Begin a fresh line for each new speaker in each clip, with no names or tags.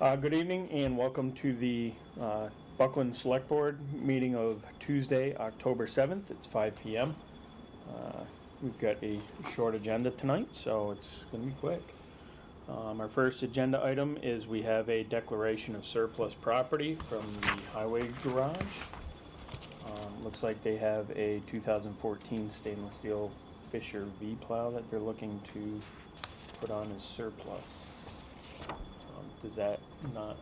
Uh, Good evening and welcome to the uh, Buckland Select Board meeting of Tuesday, October 7th. It's 5 PM. Uh, We've got a short agenda tonight, so it's going to be quick. Um, Our first agenda item is we have a declaration of surplus property from the highway garage. Um, Looks like they have a 2014 stainless steel Fisher V plow that they're looking to put on as surplus. Um, Does that not?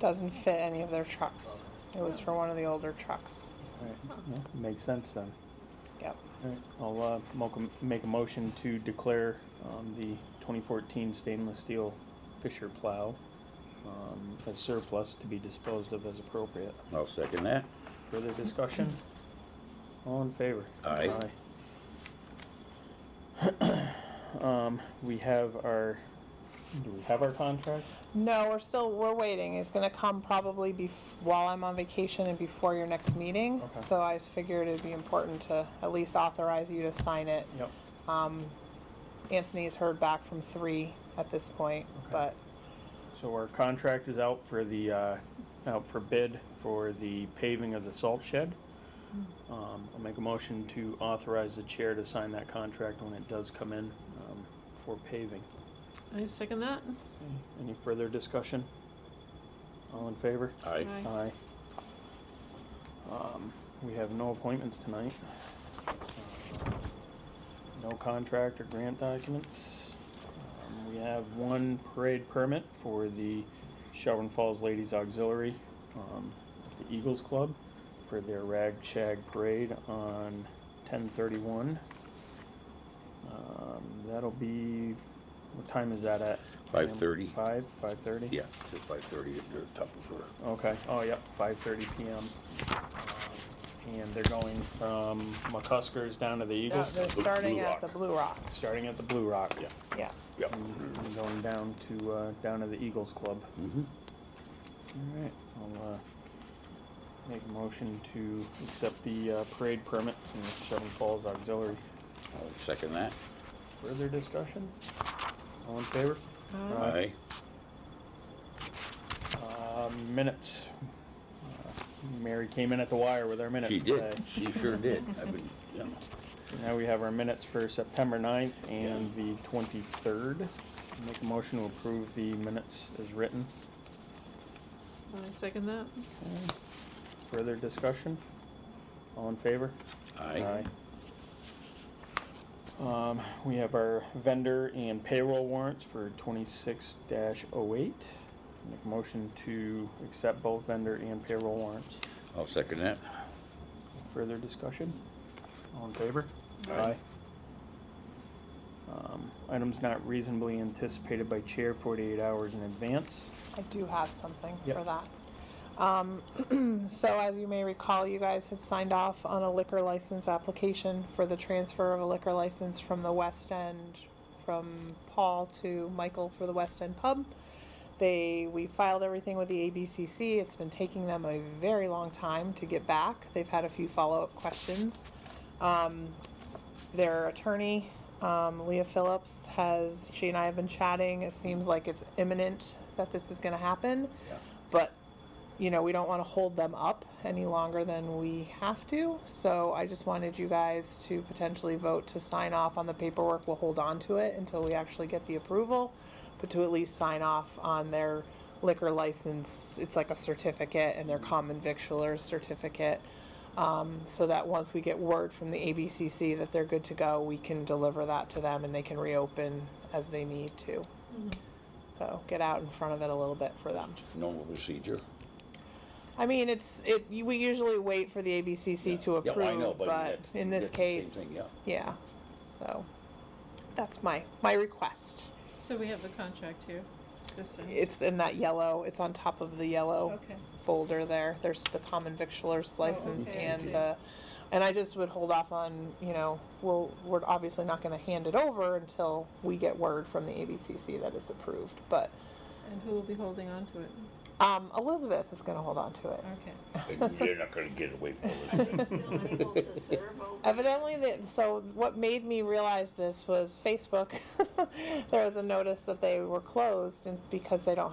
Doesn't fit any of their trucks. It was for one of the older trucks.
Yeah, Makes sense then.
Yep.
I'll uh, mo- make a motion to declare um, the 2014 stainless steel Fisher plow um, as surplus to be disposed of as appropriate.
I'll second that.
Further discussion? All in favor?
Aye.
Aye. Um, We have our, do we have our contract?
No, we're still, we're waiting. It's gonna come probably bef- while I'm on vacation and before your next meeting.
Okay.
So I just figured it'd be important to at least authorize you to sign it.
Yep.
Anthony's heard back from three at this point,
Okay.
but
So our contract is out for the, uh, out for bid for the paving of the salt shed. Um, I'll make a motion to authorize the chair to sign that contract when it does come in, um, for paving.
I second that.
Any further discussion? All in favor?
Aye.
Aye.
Aye. Um, we have no appointments tonight. Uh, No contract or grant documents. Um, We have one parade permit for the Shelburne Falls Ladies Auxiliary, um, the Eagles Club, for their Rag Shag Parade on ten thirty-one. Um, that'll be, what time is that at?
5:30.
Five, five-thirty?
Yeah, it's five thirty at the top of her.
Okay, oh, yep, five thirty PM. Um, And they're going from McCuskers down to the
no,
Eagles,
they're starting
Blue
at the
Rock.
Blue Rock.
starting at the Blue Rock.
Yeah.
Yeah.
Yep.
Mm-hmm. And going down to, uh, down to the Eagles Club.
Mm-hmm.
Alright, I'll, uh, make a motion to accept the, uh, parade permit from the Seven Falls Auxiliary.
I'll second that.
Further discussion? All in favor?
Uh,
Aye.
Aye.
Uh, minutes. Uh, Mary came in at the wire with our minutes
She
today.
did. She sure did. I've been, you know,
Now we have our minutes for September 9th and the twenty-third. Make a motion to approve the minutes as written.
I second that.
Further discussion? All in favor?
aye.
Aye. Um, we have our vendor and payroll warrants for twenty-six 8 Make a motion to accept both vendor and payroll warrants.
I'll second that.
Further discussion? All in favor?
Aye.
Um, Items not reasonably anticipated by chair forty-eight hours in advance.
I do have something
Yep.
for that. Um, so as you may recall, you guys had signed off on a liquor license application for the transfer of a liquor license from the West End, from Paul to Michael for the West End Pub. They, we filed everything with the ABCC. It's been taking them a very long time to get back. They've had a few follow-up questions. Um, their attorney, um, Leah Phillips, has, she and I have been chatting. It seems like it's imminent that this is gonna happen.
Yeah.
But, you know, we don't wanna hold them up any longer than we have to. So I just wanted you guys to potentially vote to sign off on the paperwork. We'll hold on to it until we actually get the approval, but to at least sign off on their liquor license. It's like a certificate and their common victualer's certificate Um, so that once we get word from the ABCC that they're good to go, we can deliver that to them and they can reopen as they need to. So get out in front of it a little bit for them.
Normal procedure.
I mean, it's, it, you- we usually wait for the
Yeah.
ABCC to
Yeah, well, I know,
approve, but
but that's-
in this
that's the same
case,
thing,
yeah, so. That's my, my request.
So we have the contract here. This thing.
It's oh. in that yellow, it's on top of the yellow
Okay.
folder there. There's the common victualer's license
Oh, okay, I
and
see.
the, and I just would hold off on, you know, we'll, we're obviously not gonna hand it over until we get word from the ABCC that it's approved, but,
And who will be holding on to it?
um, Elizabeth is gonna hold on to it.
Okay.
And They're not gonna get away from us.
Are they still able to serve over?
Evidently, that so what made me realize this was Facebook. there was a notice that they were closed and because they don't have